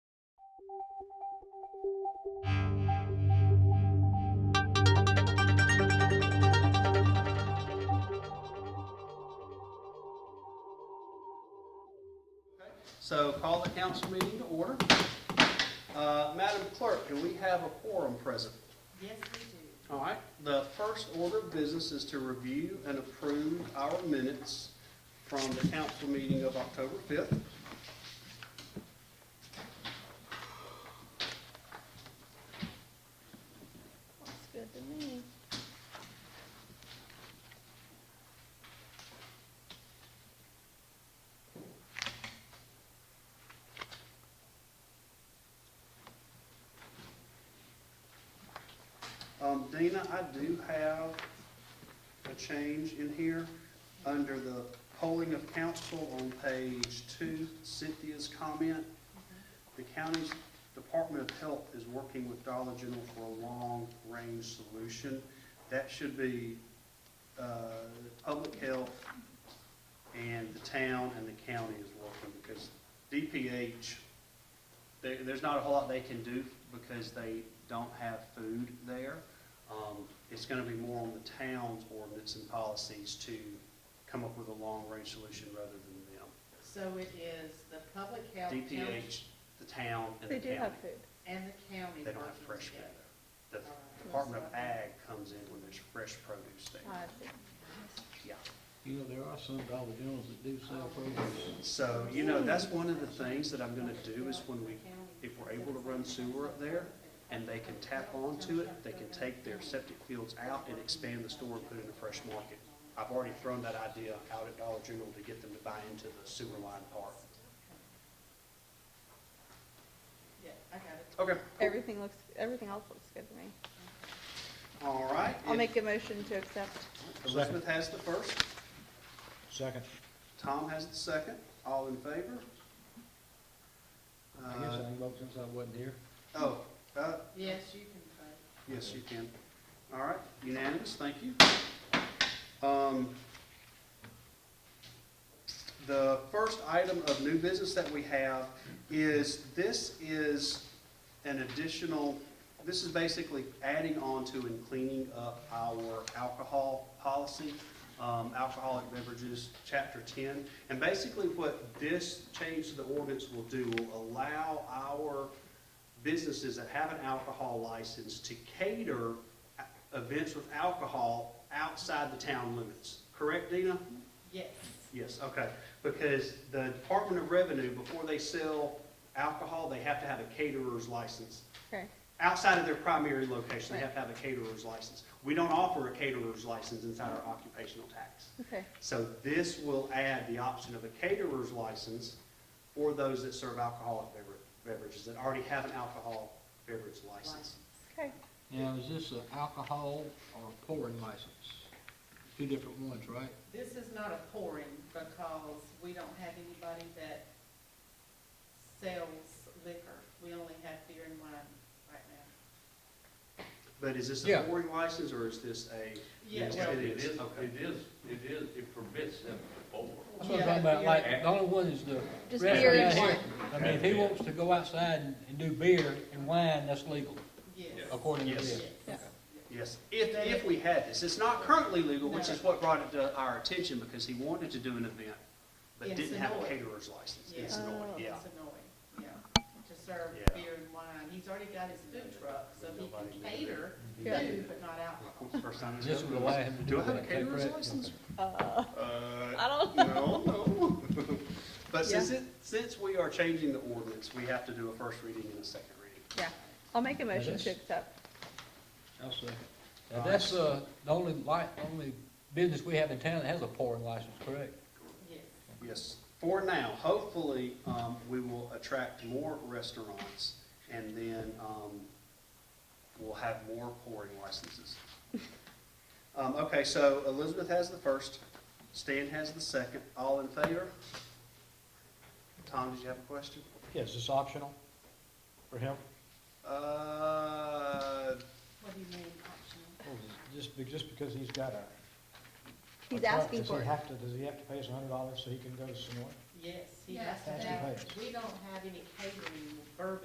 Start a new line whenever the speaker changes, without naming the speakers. So call the council meeting to order. Uh, Madam Clerk, do we have a quorum present?
Yes, we
All right, the first order of business is to review and approve our minutes from the council meeting of October 5th.
Looks good to me.
Um, Dina, I do have a change in here under the polling of council on page two, Cynthia's comment. The county's Department of Health is working with Dollar General for a long-range solution. That should be, uh, public health and the town and the county is working because DPH, there, there's not a whole lot they can do because they don't have food there. Um, it's gonna be more on the town's ordinance and policies to come up with a long-range solution rather than them.
do. So it is the public health county
DPH, the town, and the
They
county.
do have food.
and the county
They don't have
working
fresh
together.
food. The Department of Ag comes in when there's fresh produce there.
I see.
Yeah.
You know, there are some Dollar Generals that do
Oh,
sell produce.
So, you know, that's one of the things that I'm gonna do is when we, if we're able to run sewer up there and they can tap onto it, they can take their septic fields out and expand the store and put in a fresh market. I've already thrown that idea out at Dollar General to get them to buy into the sewer line part.
Yeah, I got
Okay. cool.
Everything looks, everything else looks good to me.
All right.
I'll
if-
make a motion to accept.
Elizabeth has the first.
Second.
Tom has the second. All in favor?
I guess I
Uh,
ain't voted since I wasn't here.
Oh, uh,
it. Yes, you can vote.
Yes, you can. All right, unanimous, thank you. Um, The first item of new business that we have is, this is an additional, this is basically adding on to and cleaning up our alcohol policy, um, alcoholic beverages, chapter ten. And basically what this change to the ordinance will do, will allow our businesses that have an alcohol license to cater a- events with alcohol outside the town limits. Correct, Dina?
Yes,
Yes, okay. Because the Department of Revenue, before they sell alcohol, they have to have a caterer's license.
Okay,
Outside of their primary location, they have to have a caterer's license. We don't offer a caterer's license inside our occupational tax.
okay,
So this will add the option of a caterer's license for those that serve alcoholic bever- beverages, that already have an alcohol beverage license.
license.
okay.
Now, is this an alcohol or a pouring license? Two different ones, right?
This is not a pouring because we don't have anybody that sells liquor. We only have beer and wine right now.
But is this a
Yeah.
pouring license, or is this a?
Yeah,
Yes,
well,
it
It
is.
is, it is, it is, it permits them to board.
That's what I'm
Yeah,
talking about,
beer.
like, the only one is the
Just
restaurant
beer and
here.
wine.
I mean, if he wants to go outside and- and do beer and wine, that's legal,
yes.
Yeah.
according to
Yes.
this.
Yes.
Yes, if, if we had this. It's not currently legal, which is what brought it to our attention, because he wanted to do an event, but
In
didn't have a
Sonoy.
caterer's license.
Yeah.
It's annoying,
Oh.
yeah.
It's annoying, yeah, to serve
Yeah.
beer and wine. He's already got his food truck, so he
Nobody
can
knew
cater
Yeah.
food, but not alcohol.
First time it's
This would
ever-
allow him to do
Do I
that.
have a caterer's
correct?
license?
Uh,
Uh,
I don't,
No, no. But since it, since we are changing the ordinance, we have to do a first reading and a second reading.
yeah, I'll make a motion
is-
to accept.
I'll second. Now, that's, uh, the only li, only business we have in town that has a pouring license, correct?
Yes.
Yes, for now, hopefully, um, we will attract more restaurants and then, um, we'll have more pouring licenses. Um, okay, so Elizabeth has the first, Stan has the second, all in favor? Tom, did you have a question?
Yeah, is this optional for him?
Uh,
What do you mean optional?
Just, be- just because he's got a.
He's
a truck,
asking for
Does
it.
he have to, does he have to pay us a hundred dollars so he can go to Sonoy?
Yes, he
Yeah.
has to
That's
have,
right.
we don't have any catering, bourbon